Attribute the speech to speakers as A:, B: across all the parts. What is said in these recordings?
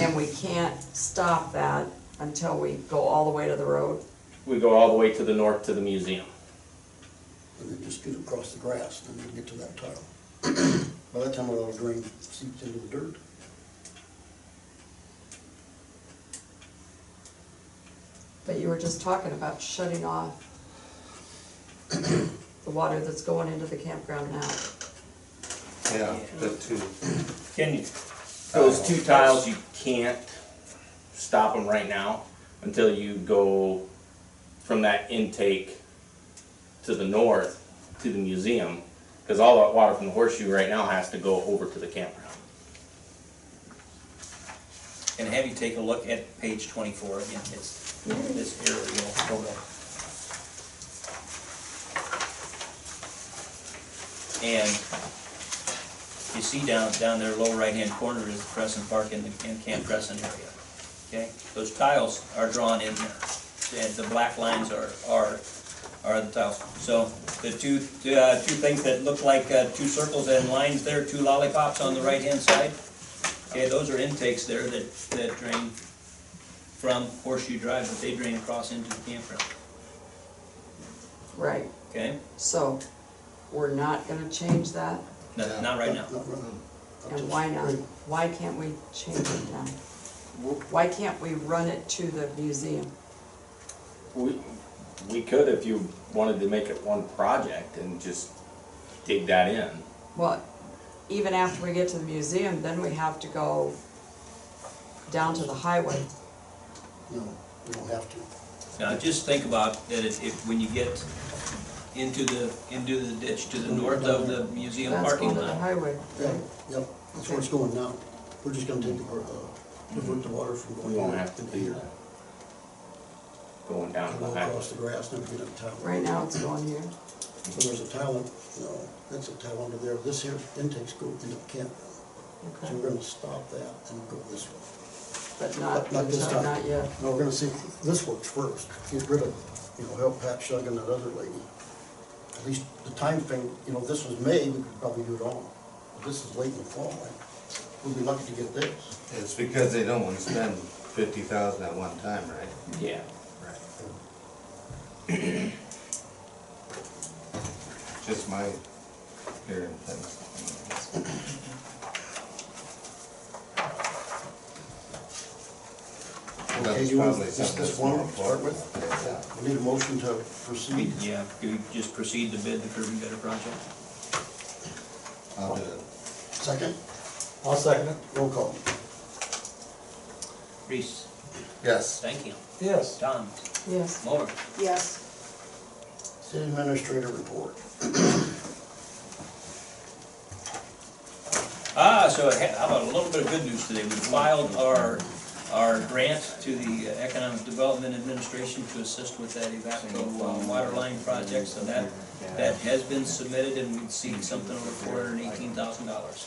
A: and we can't stop that until we go all the way to the road?
B: We go all the way to the north to the museum.
C: and then just get across the grass, and then get to that tile. By that time, all the drain seeps into the dirt.
A: But you were just talking about shutting off the water that's going into the campground now.
D: Yeah, the two.
B: Can you, those two tiles, you can't stop them right now until you go from that intake to the north, to the museum, because all that water from the horseshoe right now has to go over to the campground.
E: And have you take a look at page twenty-four again, it's, this aerial photo. And you see down, down there, lower right-hand corner is the Crescent Park and the, and Camp Crescent area, okay? Those tiles are drawn in there, and the black lines are, are, are the tiles. So the two, uh, two things that look like, uh, two circles and lines there, two lollipops on the right-hand side, Okay, those are intakes there that, that drain from Horseshoe Drive, but they drain across into the campground,
A: Right,
E: okay?
A: so we're not gonna change that?
E: Not, not right now.
C: Not right now. Not till
A: And why not?
C: spring.
A: Why can't we change it now? Why can't we run it to the museum?
B: We, we could if you wanted to make it one project and just dig that in.
A: Well, even after we get to the museum, then we have to go down to the highway.
C: No, we don't have to.
E: Now, just think about that if, if, when you get into the, into the ditch to the north of the museum
A: That's
E: parking
A: going to the
E: lot,
A: highway.
C: Yeah, yep, that's where it's going now. We're just gonna take the, uh, divert the water from going.
B: We won't have to do that. Going down to the
C: Go
B: highway.
C: across the grass, never get up the tile.
A: Right now, it's going here.
C: So there's a tile, no, that's a tile under there. This here intake's go into the campground. So
A: Okay,
C: we're gonna stop that and go this way.
A: But not,
C: Not this time.
A: not yet.
C: No, we're gonna see, if this works first. Get rid of, you know, help Pat Shug and that other lady. At least the time frame. you know, this was May, we could probably do it all. But this is late in the fall, right? We'll be lucky to get this.
D: It's because they don't want to spend fifty thousand at one time, right?
B: Yeah.
D: Right. Just my hearing things.
C: Okay,
D: That's
C: you want
D: probably
C: this,
D: something
C: this one to
D: that's more
C: start with?
D: important.
C: We need a motion to proceed.
E: yeah, you just proceed to bid the curb and gutter project.
D: I'll do it.
C: Second,
F: I'll second it.
C: roll call.
E: Reese,
D: Yes,
E: thank you.
F: Yes.
E: Tom,
A: Yes.
E: Moore,
A: Yes.
C: City Administrator report.
E: Ah, so I had- how about a little bit of good news today? We filed our, our grant to the uh, Economic Development Administration to assist with that Evapco uh, water line project, so that, that has been submitted and we'd see something over four hundred and eighteen thousand dollars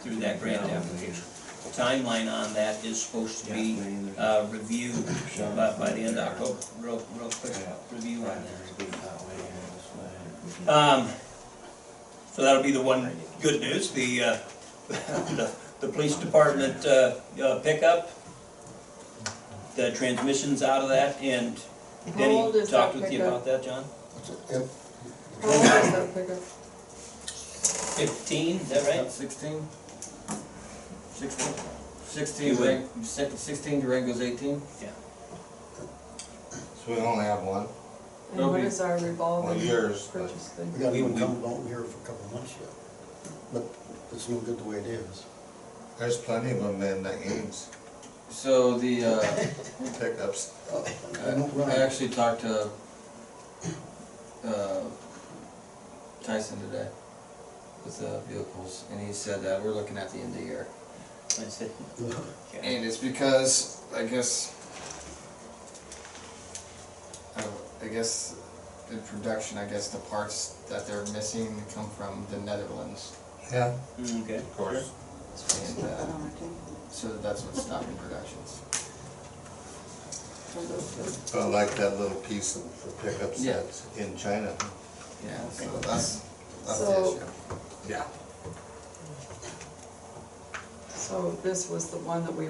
E: through that grant application. Timeline on that is supposed to be uh, reviewed by, by the end of October, real, real quick review on that. Um, so that'll be the one good news, the, uh, the, the police department, uh, uh, pickup, the transmissions out of that, and
A: How old
E: Denny
A: is that
E: talked with you
A: pickup?
E: about that, John?
C: That's it. Yep.
A: How old is that pickup?
E: Fifteen, is that right?
G: Sixteen? Sixteen?
E: You
G: Sixteen,
E: would-
G: Durang- you said sixteen, Durango's eighteen?
D: so we only have one,
A: And what
G: Okay.
A: is our
D: well,
A: revolving
D: yours, but
A: purchase thing?
C: We got
E: We-
C: one
E: we-
C: coming out here for a couple of months yet, but it's no good the way it is.
D: there's plenty of them in the Ames
G: So the, uh,
D: pickups.
C: Uh, I don't
G: I
C: run.
G: actually talked to, uh, Tyson today with the vehicles, and he said that we're looking at the end of the year.
E: I said, okay.
G: And it's because, I guess, I, I guess in production, I guess the parts that they're missing come from the Netherlands.
D: Yeah,
E: Mm, Okay.
D: of course.
G: And, uh, so that's what's stopping productions.
D: But like that little piece of the pickups
G: Yeah.
D: that's in China.
G: Yeah, so that's, that's
A: So-
G: the issue.
D: Yeah.
A: So this was the one that we